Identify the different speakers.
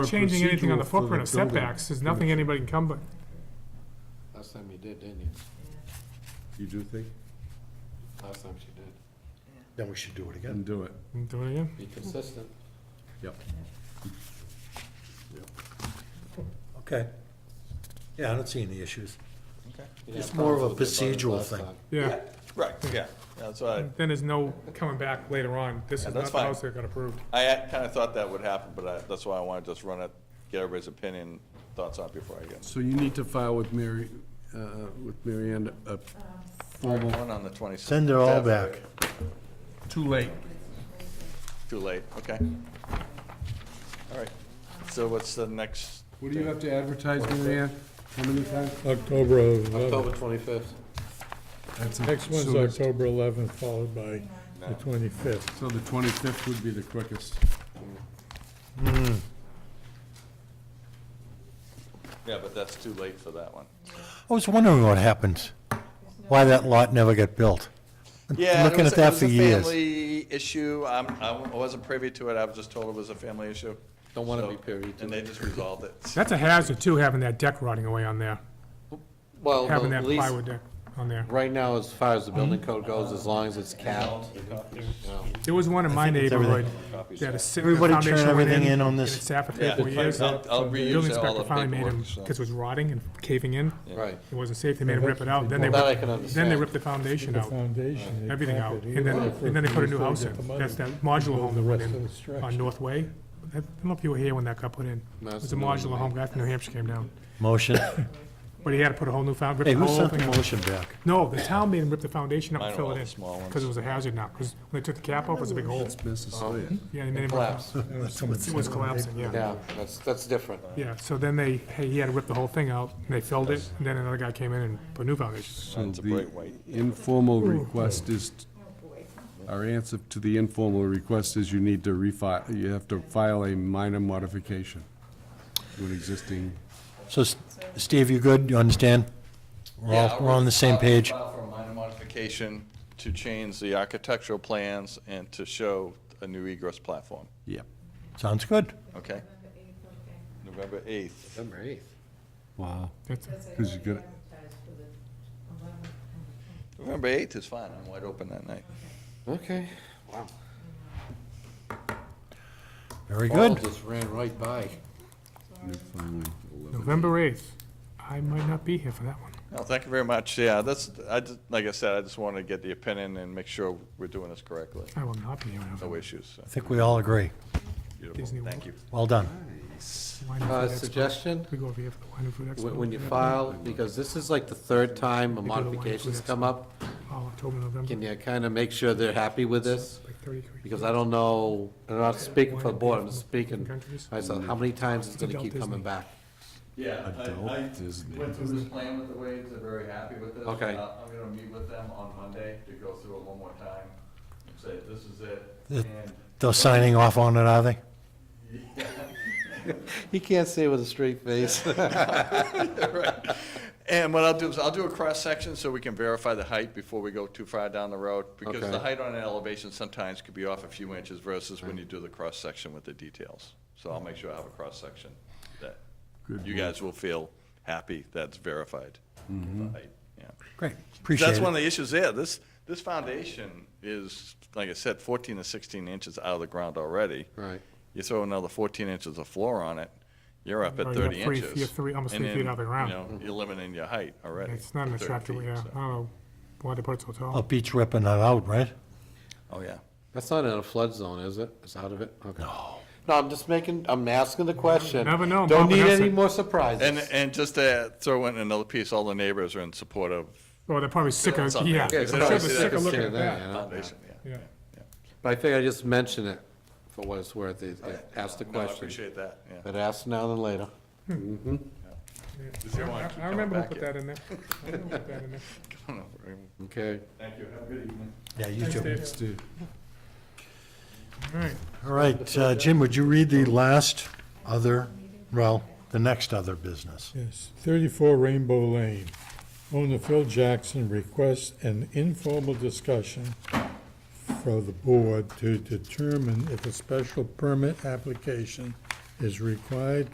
Speaker 1: changing anything on the
Speaker 2: procedural for the
Speaker 1: footprint of
Speaker 2: building.
Speaker 1: setbacks, there's nothing anybody can come by.
Speaker 3: Last time you did, didn't you?
Speaker 2: You do think?
Speaker 3: Last time she did.
Speaker 4: Then we should do it again.
Speaker 2: And do it.
Speaker 1: Do it again.
Speaker 3: Be consistent.
Speaker 2: Yep.
Speaker 4: Okay. Yeah, I don't see any issues.
Speaker 3: You didn't
Speaker 4: It's
Speaker 3: have
Speaker 4: more of a
Speaker 3: problems with the
Speaker 4: procedural
Speaker 3: budget last
Speaker 4: thing.
Speaker 3: time.
Speaker 1: Yeah,
Speaker 5: Right, yeah, that's why,
Speaker 1: then there's no coming back later on, this
Speaker 5: Yeah,
Speaker 1: is
Speaker 5: that's
Speaker 1: not the
Speaker 5: fine.
Speaker 1: house that got approved.
Speaker 5: I kind of thought that would happen, but I, that's why I wanted to just run it, get everybody's opinion, thoughts on it before I get.
Speaker 2: So you need to file with Mary, uh, with Mary Ann a formal,
Speaker 5: One on the twenty-sixth.
Speaker 4: Send it all back.
Speaker 2: too late.
Speaker 5: Too late, okay. All right, so what's the next,
Speaker 2: What do you have to advertise, Mary Ann? How many times?
Speaker 6: October 11th.
Speaker 3: October twenty-fifth.
Speaker 6: Next one's October 11th, followed by the 25th.
Speaker 2: So the twenty-fifth would be the quickest.
Speaker 5: yeah, but that's too late for that one.
Speaker 4: I was wondering what happened, why that lot never got built.
Speaker 5: Yeah, and it
Speaker 4: Looking
Speaker 5: was-
Speaker 4: at that for
Speaker 5: It
Speaker 4: years.
Speaker 5: was a family issue, I'm, I wasn't privy to it, I was just told it was a family issue.
Speaker 3: Don't wanna
Speaker 5: So-
Speaker 3: be privy to
Speaker 5: And they
Speaker 3: it.
Speaker 5: just resolved it.
Speaker 1: That's a hazard too, having that deck rotting away on there,
Speaker 5: Oh,
Speaker 3: Well,
Speaker 1: having
Speaker 3: the
Speaker 1: that
Speaker 3: least,
Speaker 1: plywood Mm-hmm. deck on there.
Speaker 3: right now, as far as the building code goes, as long as it's capped, you know,
Speaker 1: There was one in my
Speaker 4: it's
Speaker 1: neighborhood
Speaker 5: Copies.
Speaker 1: that is sitting, the
Speaker 4: Everybody turn
Speaker 1: foundation went
Speaker 4: everything
Speaker 1: in,
Speaker 4: in on
Speaker 1: and it
Speaker 4: this?
Speaker 1: sat for three,
Speaker 5: Yeah,
Speaker 1: four years.
Speaker 5: I'll- I'll
Speaker 1: The
Speaker 5: reuse all
Speaker 1: building inspector
Speaker 5: the
Speaker 1: finally made him,
Speaker 5: paperwork, so.
Speaker 1: because it was rotting and caving in,
Speaker 3: right.
Speaker 1: it wasn't safe, they made him rip it out, then they,
Speaker 3: That I
Speaker 1: ripped-
Speaker 3: can
Speaker 1: then they
Speaker 3: understand.
Speaker 1: ripped the foundation
Speaker 6: The
Speaker 1: out,
Speaker 6: foundation. they
Speaker 1: everything
Speaker 6: cap
Speaker 1: out,
Speaker 6: it
Speaker 1: and then,
Speaker 6: here for
Speaker 1: and then they put a new
Speaker 6: years,
Speaker 1: house
Speaker 6: they
Speaker 1: in.
Speaker 6: get the money.
Speaker 1: That's that modular home that
Speaker 6: The
Speaker 1: went
Speaker 6: rest of
Speaker 1: in
Speaker 6: the structure.
Speaker 1: on North Way. I don't know if you were here when that got put in, it was a modular home, guy from New Hampshire came down,
Speaker 4: Motion.
Speaker 1: but he had to put a whole new found, rip
Speaker 4: Hey,
Speaker 1: the
Speaker 4: who
Speaker 1: whole
Speaker 4: sent
Speaker 1: thing
Speaker 4: the
Speaker 1: out.
Speaker 4: motion back?
Speaker 1: No, the town made him rip the foundation up
Speaker 5: Mine
Speaker 1: and
Speaker 5: are
Speaker 1: fill
Speaker 5: all
Speaker 1: it
Speaker 5: the
Speaker 1: in,
Speaker 5: small ones.
Speaker 1: because it was a hazard now, because when they took the cap off, it was a big hole.
Speaker 5: Um,
Speaker 2: Mrs.
Speaker 1: Yeah, they made him rip it out.
Speaker 3: Collapse,
Speaker 6: uh,
Speaker 1: It was collapsing, yeah.
Speaker 3: yeah, that's, that's different.
Speaker 1: Yeah, so then they, hey, he had to rip the whole thing out, and they filled it, and then another guy came in and put new foundations.
Speaker 2: So
Speaker 5: Mine's a
Speaker 2: the
Speaker 5: bright white.
Speaker 2: informal request is, our answer to the informal request is you need to refi, you have to file a minor modification to an existing.
Speaker 4: So, S- Steve, you good? You understand? We're
Speaker 5: Yeah,
Speaker 4: all,
Speaker 5: I
Speaker 4: we're on
Speaker 5: would
Speaker 4: the same
Speaker 5: file-
Speaker 4: page.
Speaker 5: File for a minor modification to change the architectural plans and to show a new egress platform,
Speaker 2: Yep.
Speaker 4: Sounds good.
Speaker 5: okay? November 8th.
Speaker 3: Number eighth.
Speaker 2: Wow.
Speaker 1: That's-
Speaker 2: Because you got,
Speaker 5: November 8th is fine, I'm wide open that night.
Speaker 3: Okay, wow.
Speaker 4: Very
Speaker 3: Paul
Speaker 4: good.
Speaker 3: just ran right by.
Speaker 2: finally, 11.
Speaker 1: November eighth, I might not be here for that one.
Speaker 5: No, thank you very much, yeah, that's, I, just- like I said, I just wanted to get the opinion and make sure we're doing this correctly,
Speaker 1: I will not be here in
Speaker 5: no
Speaker 1: November.
Speaker 5: issues, so,
Speaker 4: I think we all agree.
Speaker 1: Disney
Speaker 5: beautiful,
Speaker 1: World.
Speaker 5: thank you.
Speaker 4: Well done.
Speaker 1: Wine and
Speaker 3: Uh,
Speaker 1: Food Expo.
Speaker 3: suggestion,
Speaker 1: We go over here for the wine and food expo.
Speaker 3: when, when you file, because this is like the third time a
Speaker 1: do the wine
Speaker 3: modification's
Speaker 1: for
Speaker 3: come up,
Speaker 1: Oh, October, November,
Speaker 3: can you kinda make sure they're happy with this?
Speaker 1: like thirty-three.
Speaker 3: Because I don't know, I'm not speaking for the board, I'm just speaking,
Speaker 1: Countries.
Speaker 3: I said, how many times it's gonna
Speaker 1: Adult
Speaker 3: keep coming
Speaker 1: Disney.
Speaker 3: back?
Speaker 5: Yeah, I,
Speaker 2: Adult
Speaker 5: I
Speaker 2: Disney.
Speaker 5: went through this plan with the Wades, they're very happy with it.
Speaker 3: Okay.
Speaker 5: Uh, I'm gonna meet with them on Monday to go through it one more time, and say, this is it,
Speaker 4: Th-
Speaker 5: and
Speaker 4: They're signing off on it, are they?
Speaker 3: He can't say with a straight face.
Speaker 5: And what I'll do is I'll do a cross-section so we can verify the height before we go too far down the road, because
Speaker 3: Okay.
Speaker 5: the height on an elevation sometimes could be off a few inches versus when you do the cross-section with the details. So I'll make sure I have a cross-section that
Speaker 2: Good
Speaker 5: you guys will feel happy that's verified. the height, yeah.
Speaker 4: Great.
Speaker 5: That's
Speaker 4: Appreciate
Speaker 5: one of
Speaker 4: it.
Speaker 5: the issues there. This, this foundation is, like I said, 14 to 16 inches out of the ground already.
Speaker 3: Right.
Speaker 5: You throw another 14 inches of floor on it, you're up at
Speaker 1: Already up
Speaker 5: 30
Speaker 1: three-
Speaker 5: inches.
Speaker 1: you're three- almost
Speaker 5: And
Speaker 1: three feet
Speaker 5: then,
Speaker 1: off the ground.
Speaker 5: You know, you're limiting your height already.
Speaker 1: It's not an
Speaker 5: 30
Speaker 1: attractive,
Speaker 5: feet,
Speaker 1: yeah, I
Speaker 5: so-
Speaker 1: don't know why they put it so tall.
Speaker 4: Up beach ripping that out, right?
Speaker 5: Oh, yeah.
Speaker 3: That's not in a flood zone, is it? It's out of it? Okay. No. No, I'm just making, I'm asking the question.
Speaker 1: Never know,
Speaker 3: Don't
Speaker 1: Bob
Speaker 3: need
Speaker 1: Hesse.
Speaker 3: any more
Speaker 5: And,
Speaker 3: surprises.
Speaker 5: and just to throw in another piece, all the neighbors are in support of
Speaker 1: Well, Oh, they're probably sick of,
Speaker 5: Something.
Speaker 1: yeah.
Speaker 5: Yeah,
Speaker 1: I'm
Speaker 5: it's
Speaker 1: sure
Speaker 5: probably
Speaker 1: they're
Speaker 5: sick
Speaker 1: sick
Speaker 5: of
Speaker 1: of looking
Speaker 3: seeing
Speaker 1: at
Speaker 3: that,
Speaker 1: that.
Speaker 3: you know?
Speaker 5: foundation, yeah.
Speaker 1: Yeah.
Speaker 3: But I figure I just mention it for what it's worth, is- ask the
Speaker 5: No, I
Speaker 3: question.
Speaker 5: appreciate that, yeah.
Speaker 3: But ask now than later.
Speaker 5: Does everyone keep
Speaker 1: I- I
Speaker 5: coming
Speaker 1: remember who
Speaker 5: back
Speaker 1: put
Speaker 5: yet?
Speaker 1: that in there. I remember who put that in there.
Speaker 3: Okay.
Speaker 5: Thank you, have a good evening.
Speaker 4: Yeah, you
Speaker 1: Thanks,
Speaker 4: too.
Speaker 1: Dave.
Speaker 2: Steve.
Speaker 1: All right,
Speaker 4: All right, uh, Jim, would you read the last other, well, the next other business?
Speaker 6: Yes, 34 Rainbow Lane. Owner Phil Jackson requests an informal discussion for the board to determine if a special permit application is required